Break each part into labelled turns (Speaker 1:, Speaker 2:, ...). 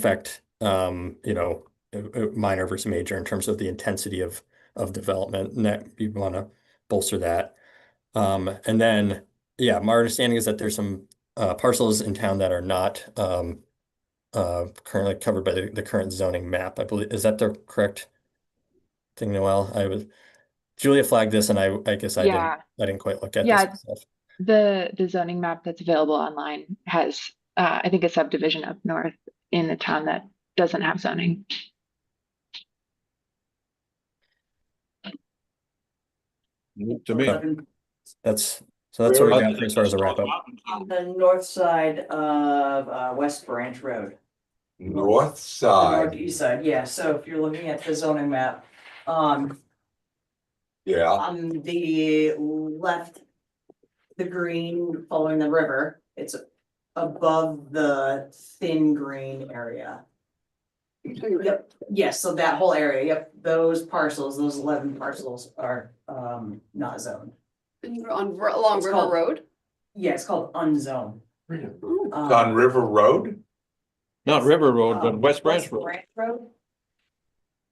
Speaker 1: affect, um, you know, uh, uh, minor versus major in terms of the intensity of of development, and that you want to bolster that. Um, and then, yeah, my understanding is that there's some uh, parcels in town that are not um, uh, currently covered by the, the current zoning map. I believe is that the correct thing, Noel? I was Julia flagged this, and I I guess I
Speaker 2: Yeah.
Speaker 1: didn't I didn't quite look at
Speaker 2: Yeah.
Speaker 1: this myself.
Speaker 2: The, the zoning map that's available online has, uh, I think a subdivision up north in a town that doesn't have zoning.
Speaker 3: To me.
Speaker 1: That's so that's what we
Speaker 3: Where
Speaker 1: got for as far as a wrap up.
Speaker 4: On the north side of uh West Branch Road.
Speaker 3: North
Speaker 4: The
Speaker 3: side,
Speaker 4: Northeast side, yeah, so if you're looking at the zoning map, um,
Speaker 3: yeah,
Speaker 4: on the left. The green following the river, it's above the thin green area. Yep, yes, so that whole area, yep, those parcels, those eleven parcels are um not zoned.
Speaker 5: On, Ri- along
Speaker 4: It's
Speaker 5: River
Speaker 4: called-
Speaker 5: Road?
Speaker 4: Yeah, it's called unzoned.
Speaker 5: Ooh.
Speaker 3: It's on
Speaker 4: Um,
Speaker 3: River Road,
Speaker 6: Not River Road, but
Speaker 4: um,
Speaker 6: West Branch Road.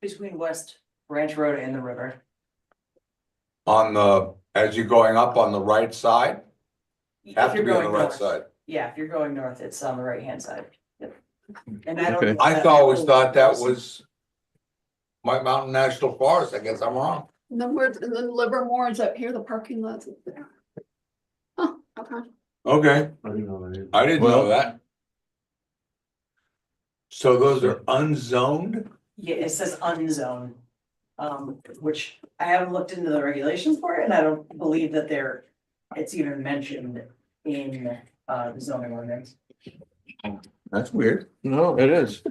Speaker 4: Between West Branch Road and the river.
Speaker 3: on the, as you're going up on the right side,
Speaker 4: If
Speaker 3: have to
Speaker 4: you're
Speaker 3: be on the
Speaker 4: going
Speaker 3: right
Speaker 4: north.
Speaker 3: side.
Speaker 4: Yeah, if you're going north, it's on the right hand side. Yep. And I don't.
Speaker 6: Okay.
Speaker 4: know
Speaker 3: I
Speaker 4: that-
Speaker 3: always thought that was White Mountain National Forest, I guess I'm wrong.
Speaker 5: And then where's, and then Livermore is up here, the parking lot's up there. Huh, okay.
Speaker 3: Okay. I didn't know
Speaker 6: Well-
Speaker 3: that. So those are unzoned?
Speaker 4: Yeah, it says unzone. Um, which I haven't looked into the regulations for it and I don't believe that they're, it's even mentioned in uh the zoning ordinance.
Speaker 3: That's weird.
Speaker 6: No, it is.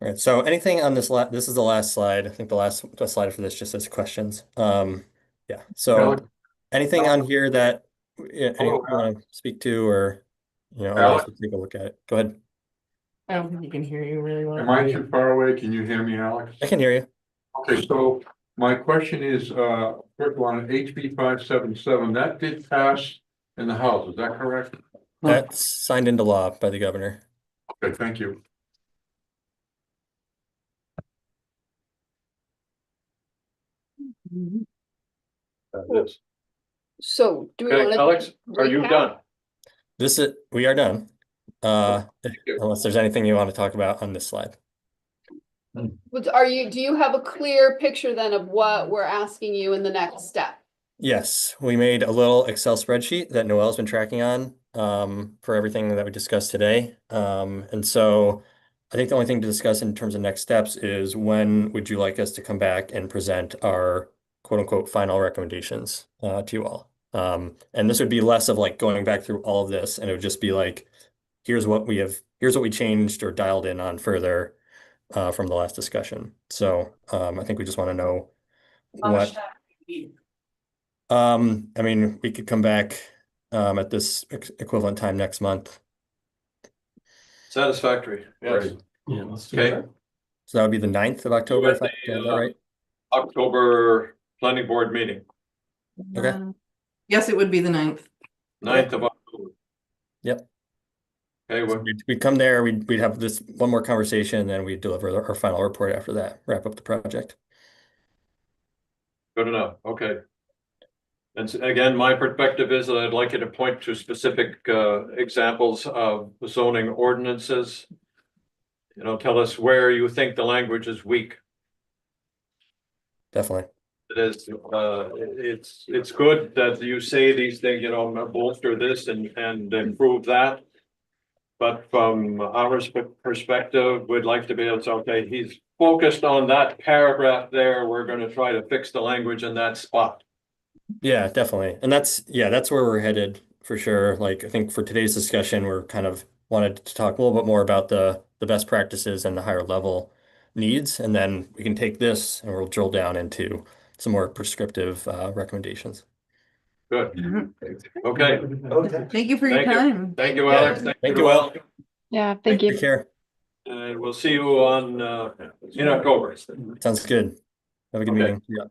Speaker 1: All right. So anything on this la this is the last slide. I think the last the slide for this just says questions. Um, yeah. So
Speaker 6: Alex-
Speaker 1: anything on here that yeah, anyone
Speaker 3: Hello,
Speaker 1: want to speak to or you know, otherwise
Speaker 7: Oh, uh, Alex.
Speaker 1: we'll take a look at it. Go ahead.
Speaker 8: I don't think you can hear you really well.
Speaker 7: Am I too far away? Can you hear me, Alex?
Speaker 1: I can hear you.
Speaker 7: Okay, so my question is, uh, first of all, on HB five seven seven, that did pass in the House, is that correct?
Speaker 1: That's signed into law by the governor.
Speaker 7: Okay, thank you.
Speaker 8: That
Speaker 5: So do we
Speaker 7: Okay,
Speaker 5: wanna?
Speaker 7: Alex, are you
Speaker 5: recap?
Speaker 7: done?
Speaker 1: This is we are done. Uh, if-
Speaker 7: you.
Speaker 1: unless there's anything you want to talk about on this slide.
Speaker 5: Was- Are you, do you have a clear picture then of what we're asking you in the next step?
Speaker 1: Yes, we made a little Excel spreadsheet that Noel's been tracking on um, for everything that we discussed today. Um, and so I think the only thing to discuss in terms of next steps is when would you like us to come back and present our quote unquote final recommendations uh, to you all? Um, and this would be less of like going back through all of this, and it would just be like, here's what we have, here's what we changed or dialed in on further uh, from the last discussion. So um, I think we just want to know
Speaker 4: How
Speaker 1: what.
Speaker 4: much time do you need?
Speaker 1: Um, I mean, we could come back um at this ex- equivalent time next month.
Speaker 7: Satisfactory,
Speaker 3: yes.
Speaker 6: Yeah, let's do
Speaker 7: Okay.
Speaker 6: that.
Speaker 1: So that would be the 9th of October,
Speaker 7: got
Speaker 1: if I
Speaker 7: the,
Speaker 1: got that
Speaker 7: uh,
Speaker 1: right?
Speaker 7: October planning board meeting,
Speaker 1: Okay.
Speaker 8: Yes, it would be the ninth.
Speaker 1: 9th
Speaker 7: of October.
Speaker 1: Yep.
Speaker 7: Okay,
Speaker 1: So We'd we'd come there, we'd we'd have this one more conversation, and then we'd deliver our final report after that, wrap up the project.
Speaker 7: Good enough, okay. And s- again, my perspective is that I'd like you to point to specific uh examples of zoning ordinances. You know, tell us where you think the language is weak.
Speaker 1: Definitely.
Speaker 7: It is, uh, it's, it's good that you say these things, you know, bolster this and, and improve that. But from our sp- perspective, we'd like to be able to, say, okay, he's focused on that paragraph there. We're gonna try to fix the language in that spot.
Speaker 1: Yeah, definitely. And that's, yeah, that's where we're headed for sure. Like, I think for today's discussion, we're kind of wanted to talk a little bit more about the the best practices and the higher level needs, and then we can take this and we'll drill down into some more prescriptive uh recommendations.
Speaker 7: Good. Okay,
Speaker 8: Thank you for your
Speaker 7: Thank you.
Speaker 8: time.
Speaker 7: thank you, Alex.
Speaker 1: Thank you all.
Speaker 2: Yeah, thank you.
Speaker 1: Take care.
Speaker 7: And we'll see you on, uh, in October.
Speaker 1: Sounds good. Have a good
Speaker 7: Okay.
Speaker 1: meeting. Yeah.